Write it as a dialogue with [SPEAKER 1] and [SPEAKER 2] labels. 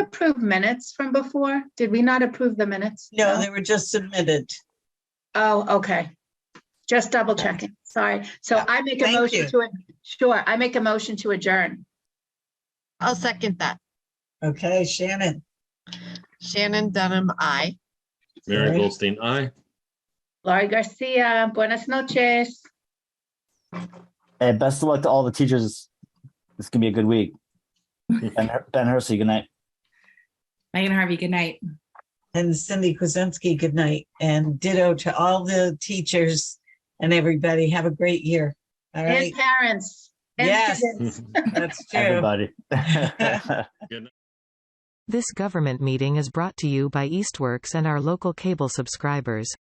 [SPEAKER 1] approve minutes from before? Did we not approve the minutes?
[SPEAKER 2] No, they were just submitted.
[SPEAKER 1] Oh, okay. Just double checking. Sorry. So
[SPEAKER 2] Yeah,
[SPEAKER 1] I make a
[SPEAKER 2] thank
[SPEAKER 1] motion
[SPEAKER 2] you.
[SPEAKER 1] to, ad- sure, I make a motion to adjourn.
[SPEAKER 3] I'll second that.
[SPEAKER 2] Okay, Shannon,
[SPEAKER 3] Shannon Dunham, I.
[SPEAKER 2] Alright.
[SPEAKER 4] Mary Goldstein, aye.
[SPEAKER 1] Laurie Garcia, buenas noches.
[SPEAKER 5] Hey, best of luck to all the teachers. This can be a good week. Ben, Her- ben Hersey, good night.
[SPEAKER 6] Megan Harvey, good night.
[SPEAKER 2] and Cindy Kuzensky, good night, and ditto to all the teachers and everybody. Have a great year. All
[SPEAKER 1] And
[SPEAKER 2] right,
[SPEAKER 1] parents. and
[SPEAKER 2] Yes.
[SPEAKER 1] students.
[SPEAKER 2] that's true.
[SPEAKER 5] Everybody.
[SPEAKER 7] This government meeting is brought to you by Eastworks and our local cable subscribers.